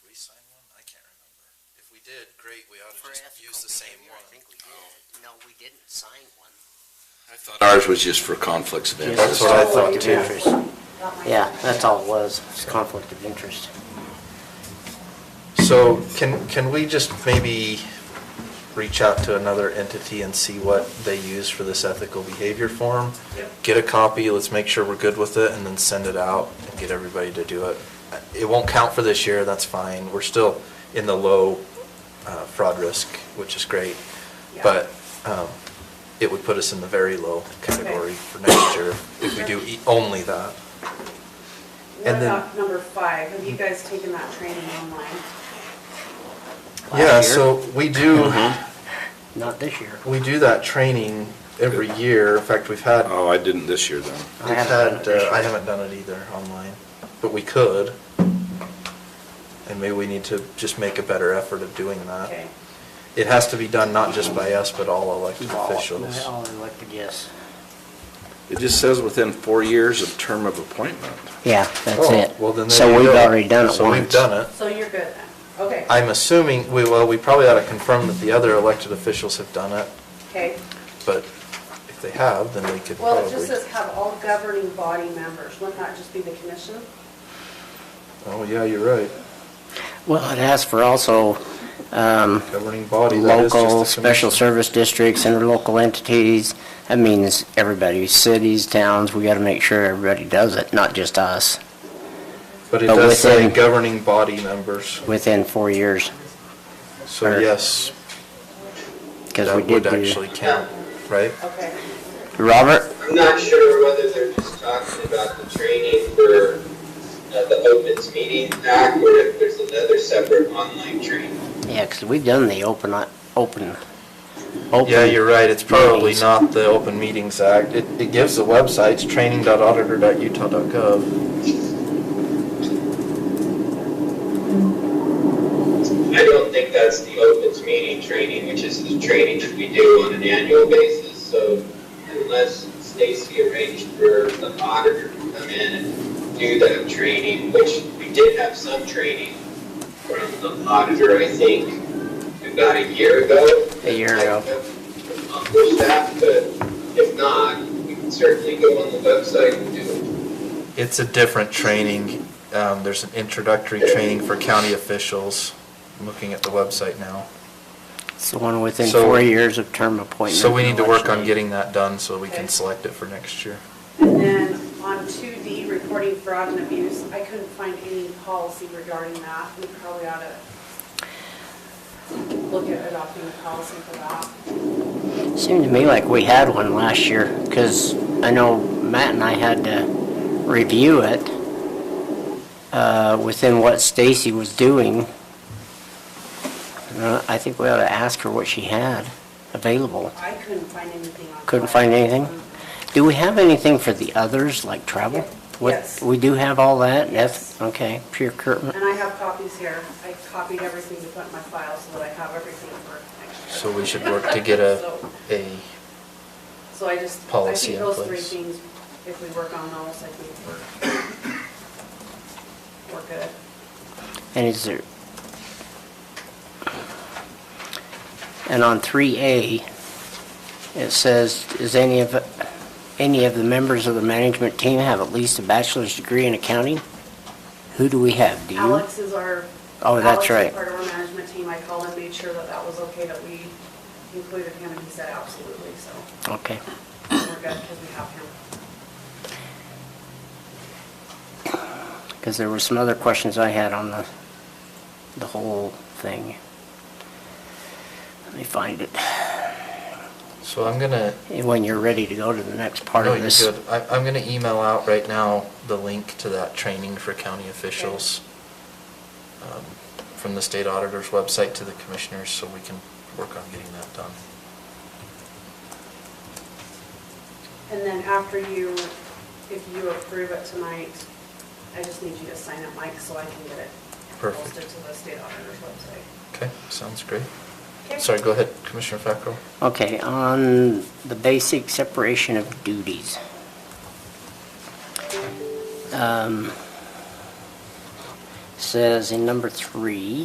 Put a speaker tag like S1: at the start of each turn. S1: we did, great, we ought to
S2: For
S1: just
S2: ethical
S1: use the same
S2: behavior,
S1: one.
S2: I think we did. No, we didn't sign one.
S1: I thought ours was just for conflicts of interest.
S3: That's what I thought too.
S4: Yeah, that's all it was, it's conflict of interest.
S3: So can, can we just maybe reach out to another entity and see what they use for this ethical behavior form? Get a copy, let's make sure we're good with it, and then send it out and get everybody to do it. It won't count for this year, that's fine. We're still in the low uh, fraud risk, which is great.
S5: Yeah.
S3: But um, it would put us in the very low category for next year if we do e- only that.
S5: What
S3: And then-
S5: about number five? Have you guys taken that training online?
S4: Last
S3: Yeah,
S4: year?
S3: so we do,
S4: Mm-hmm. Not this year.
S3: We do that training every year. In fact, we've had,
S6: Oh, I didn't this year then.
S4: I
S3: we've
S4: haven't done it
S3: had,
S4: this
S3: uh, I
S4: year.
S3: haven't done it either online, but we could. And maybe we need to just make a better effort of doing that.
S5: Okay.
S3: It has to be done not just by us, but all elected officials.
S4: All elected, yes.
S6: It just says within four years of term of appointment.
S4: Yeah, that's
S3: Oh,
S4: it.
S3: Well, then there
S4: So
S3: you
S4: we've
S3: go.
S4: already done it once.
S3: So we've done it.
S5: So you're good then? Okay.
S3: I'm assuming, we, well, we probably ought to confirm that the other elected officials have done it,
S5: Okay.
S3: but if they have, then they could probably.
S5: Well, it just says have all governing body members. Wouldn't that just be the commission?
S3: Oh, yeah, you're right.
S4: Well, it has for also um,
S3: Governing body, that is just the
S4: local, special
S3: commission.
S4: service districts, interlocal entities. That means everybody, cities, towns, we got to make sure everybody does it, not just us,
S3: But it
S4: But
S3: does say
S4: within-
S3: governing body members,
S4: within four years,
S3: so yes,
S4: because we
S3: that
S4: did
S3: would
S4: do.
S3: actually count, right?
S5: Okay.
S4: Robert,
S7: I'm not sure whether they're just talking about the training for uh, the Opens Meeting Act or if there's another separate online training.
S4: yeah, because we've done the open, uh, open, open.
S3: Yeah, you're right, it's probably
S4: meetings.
S3: not the Open Meetings Act. It, it gives the websites, training.auditor.utah.gov.
S7: I don't think that's the Opens Meeting training, which is the training that we do on an annual basis. So unless Stacy arranged for the auditor to come in and do that training, which we did have some training from the auditor, I think, about a year ago.
S4: A year ago.
S7: Accomplish that, but if not, we can certainly go on the website and do it.
S3: It's a different training. Um, there's an introductory training for county officials. I'm looking at the website now.
S4: It's the one within
S3: So-
S4: four years of term appointment.
S3: So we
S4: and
S3: need to work
S4: election
S3: on
S4: date.
S3: getting that done so we can
S5: Okay.
S3: select it for next year.
S5: And then on two D, reporting fraud and abuse, I couldn't find any policy regarding that. We probably ought to look at adopting a policy for that.
S4: Seemed to me like we had one last year, because I know Matt and I had to review it uh, within what Stacy was doing. Uh, I think we ought to ask her what she had available.
S5: I couldn't find anything on.
S4: Couldn't
S5: file. Um,
S4: find anything? Do we have anything for the others, like travel? What-
S5: Yes.
S4: We do have all that? That's-
S5: Yes.
S4: Okay, pure curtain.
S5: And I have copies here. I copied everything to put in my file so that I have everything for next
S3: So
S5: year.
S3: we should work to get a,
S5: So-
S3: a
S5: So I just, I
S3: policy
S5: think
S3: in
S5: those three
S3: place.
S5: things, if we work on those, I think we're, we're good.
S4: And is there? And on three A, it says, is any of, any of the members of the management team have at least a bachelor's degree in accounting? Who do we have? Do you?
S5: Alex is our.
S4: Oh, that's
S5: Alex
S4: right.
S5: is part of our management team. I called and made sure that that was okay, that we included him, and he said absolutely, so
S4: Okay.
S5: we're good because we have him.
S4: Because there were some other questions I had on the, the whole thing. Let me find it.
S3: so I'm gonna
S4: When you're ready to go to the next part
S3: No,
S4: of
S3: you're
S4: this.
S3: good. I, I'm gonna email out right now the link to that training for county officials um, from the state auditor's website to the commissioners, so we can work on getting that done.
S5: And then after you, if you approve it tonight, I just need you to sign it, Mike, so I can get it
S3: Perfect.
S5: posted to the state auditor's website.
S3: Okay, sounds great.
S5: Okay?
S3: Sorry, go ahead, Commissioner Fackrell.
S4: Okay, on the basic separation of duties. Um, Says in number three,